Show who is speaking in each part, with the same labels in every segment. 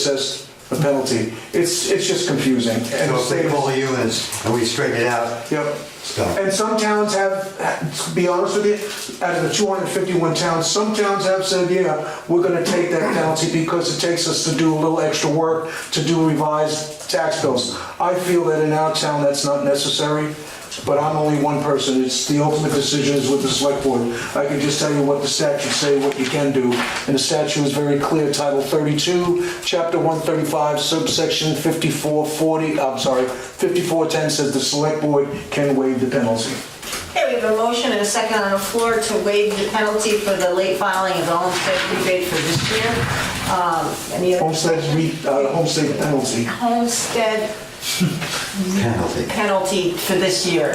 Speaker 1: assess the penalty. It's, it's just confusing. And
Speaker 2: So if they
Speaker 1: it's-
Speaker 2: call the units and we straighten it out,
Speaker 1: Yep.
Speaker 2: Stop.
Speaker 1: And some towns have, to be honest with you, out of the 251 towns, some towns have said, yeah, we're gonna take that penalty because it takes us to do a little extra work to do revised tax bills. I feel that in our town, that's not necessary, but I'm only one person. It's, the ultimate decision is with the select board. I can just tell you what the statutes say, what you can do. And the statute is very clear, Title 32, Chapter 135, subsection 5440, I'm sorry, 5410 says the select board can waive the penalty.
Speaker 3: Okay, we have a motion and a second on the floor to waive the penalty for the late filing of the homestead rebate for this year. Um, Any other?
Speaker 1: Homestead, re- uh, homestead penalty.
Speaker 3: Homestead
Speaker 2: penalty.
Speaker 3: penalty for this year.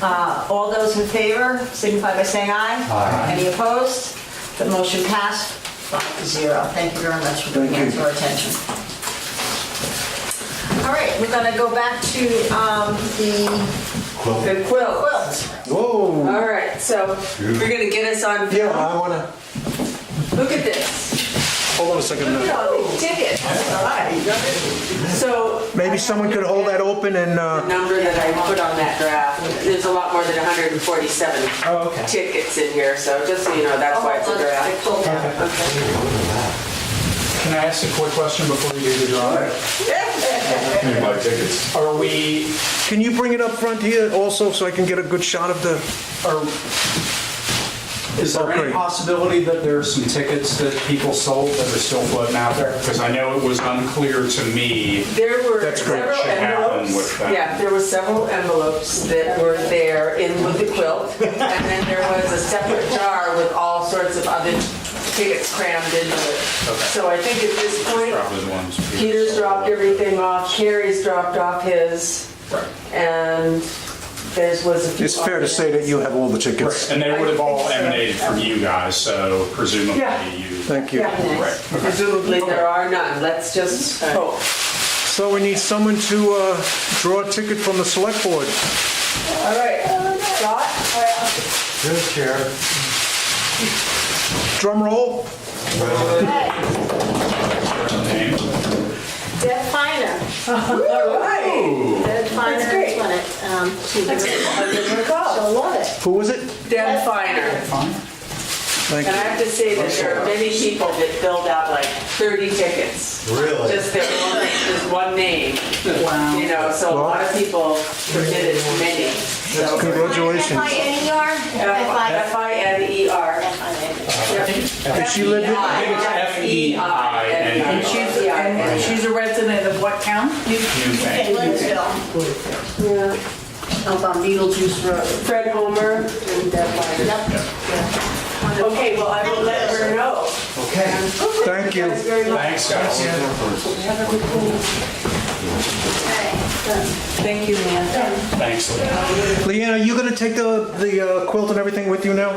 Speaker 3: Uh, All those in favor signify by saying aye.
Speaker 2: Aye.
Speaker 3: Any opposed? The motion passed five to zero. Thank you very much for bringing it
Speaker 1: Thank
Speaker 3: to
Speaker 1: you.
Speaker 3: our attention. All right, we're gonna go back to um, the
Speaker 2: Quilt.
Speaker 4: The quilt.
Speaker 3: quilt.
Speaker 1: Whoa,
Speaker 4: All right, so we're gonna get us on.
Speaker 1: yeah, I wanna,
Speaker 4: Look at this. Oh,
Speaker 1: hold on a second.
Speaker 4: Look at
Speaker 1: now.
Speaker 4: all these tickets. All right. So
Speaker 1: Maybe someone could hold that open and,
Speaker 4: the
Speaker 1: uh,
Speaker 4: number that I put on that graph, there's a lot more than 147
Speaker 1: Oh, okay.
Speaker 4: tickets in here. So just so you know, that's why it's a
Speaker 3: I
Speaker 4: graph.
Speaker 3: pulled that.
Speaker 4: Okay.
Speaker 5: Can I ask a quick question before we do the drawing? Are we,
Speaker 1: can you bring it up front here also so I can get a good shot of the,
Speaker 5: are, is there
Speaker 1: Okay.
Speaker 5: any possibility that there are some tickets that people sold that are still floating out there? Because I know it was unclear to me.
Speaker 4: There were
Speaker 5: That's great.
Speaker 4: several
Speaker 5: Should happen
Speaker 4: envelopes.
Speaker 5: with that.
Speaker 4: Yeah, there were several envelopes that were there in with the quilt. And then there was a separate jar with all sorts of other tickets crammed into it. So I think at this point,
Speaker 5: Probably the ones. people
Speaker 4: Peter's
Speaker 5: sold.
Speaker 4: dropped everything off, Carrie's dropped off his,
Speaker 5: Right.
Speaker 4: and theirs was a few.
Speaker 1: it's fair to say that you have all the tickets.
Speaker 5: And they would have
Speaker 4: I
Speaker 5: all
Speaker 4: think so.
Speaker 5: emanated from you guys, so presumably
Speaker 4: Yeah.
Speaker 5: you.
Speaker 1: Thank you.
Speaker 4: Yeah.
Speaker 5: Right. Oh.
Speaker 4: Presumably there are none, let's just hope.
Speaker 1: So we need someone to, uh, draw a ticket from the select board.
Speaker 4: All right, Scott?
Speaker 2: Your chair.
Speaker 1: Drum roll.
Speaker 5: Name?
Speaker 6: Deb Finer.
Speaker 4: All right.
Speaker 6: Deb Finer
Speaker 4: That's great.
Speaker 6: has won it. Um, She did
Speaker 4: Recall,
Speaker 6: She'll love it.
Speaker 1: Who was it?
Speaker 4: Dan Finer.
Speaker 1: Thank
Speaker 4: And I
Speaker 1: you.
Speaker 4: have to say that there are many people that filled out like 30 tickets.
Speaker 2: Really?
Speaker 4: Just their one, just one name. Wow. You know, so a lot of people submitted many. So
Speaker 1: Congratulations.
Speaker 6: F-I-N-E-R?
Speaker 4: F I N E R. E
Speaker 1: Did she live in-
Speaker 5: I think it's F-E-I-N-E-R.
Speaker 4: And she's, and she's a resident of what town?
Speaker 5: You think?
Speaker 6: Lidsville. Up on Beetlejuice Road.
Speaker 4: Fred Homer and Deb Finer.
Speaker 6: Yep.
Speaker 4: Okay, well, I will let her know.
Speaker 2: Okay.
Speaker 1: Thank you.
Speaker 4: That's very much.
Speaker 5: Thanks, guys.
Speaker 4: Thank you, man.
Speaker 5: Thanks. Leanne.
Speaker 1: Leanne, are you gonna take the, the uh, quilt and everything with you now?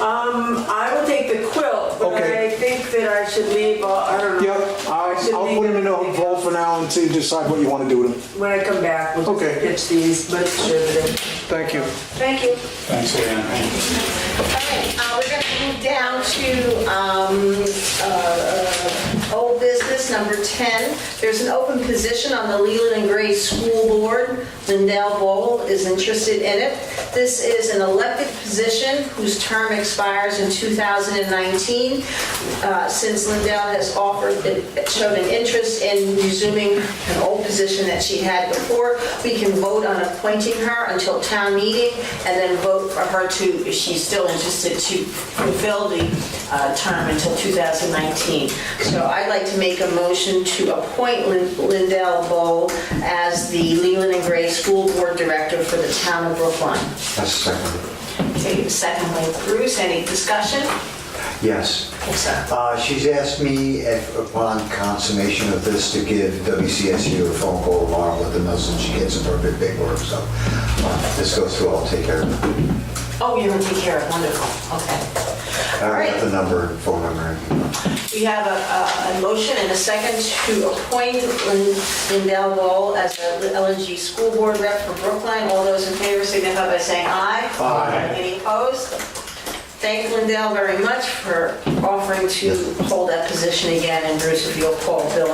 Speaker 4: I will take the quilt, but
Speaker 1: Okay.
Speaker 4: I think that I should leave, all- I don't know.
Speaker 1: Yep,
Speaker 4: I should
Speaker 1: I'll
Speaker 4: leave
Speaker 1: put him in a
Speaker 4: everything
Speaker 1: vault for now until you decide what you wanna do with him.
Speaker 4: When I come back, we'll
Speaker 1: Okay.
Speaker 4: just pitch these, but sure that it-
Speaker 1: Thank you.
Speaker 6: Thank you.
Speaker 5: Thanks, Leanne.
Speaker 6: uh, We're going to move down to um, uh, old business, number 10. There's an open position on the Leland and Gray School Board. Lindell Bowl is interested in it. This is an elected position whose term expires in 2019. Uh, Since Lindell has offered, shown an interest in resuming an old position that she had before, we can vote on appointing her until town meeting and then vote for her to, if she's still interested, to fulfill the uh, term until 2019. So I'd like to make a motion to appoint Lin- Lindell Bowe as the Leland and Gray School Board Director for the town of Brookline.
Speaker 2: That's second.
Speaker 6: Okay, Second by Bruce, any discussion?
Speaker 2: Yes.
Speaker 6: Yes, sir.
Speaker 2: Uh, She's asked me if upon consummation of this to give WCSU a phone call along with the message she gets of her big, big work. So uh, if this goes through, I'll take care of it.
Speaker 6: Oh, you're going to take care of, it. wonderful, okay. All
Speaker 2: I got
Speaker 6: right.
Speaker 2: the number, phone number.
Speaker 6: We have a- a, a motion and a second to appoint Lin- Lindell Wall as the LNG School Board Rep for Brookline. All those in favor signify by saying aye.
Speaker 2: Aye.
Speaker 6: Any opposed? Thank Lindell very much for offering to hold that position again, and Bruce, if you'll call Billy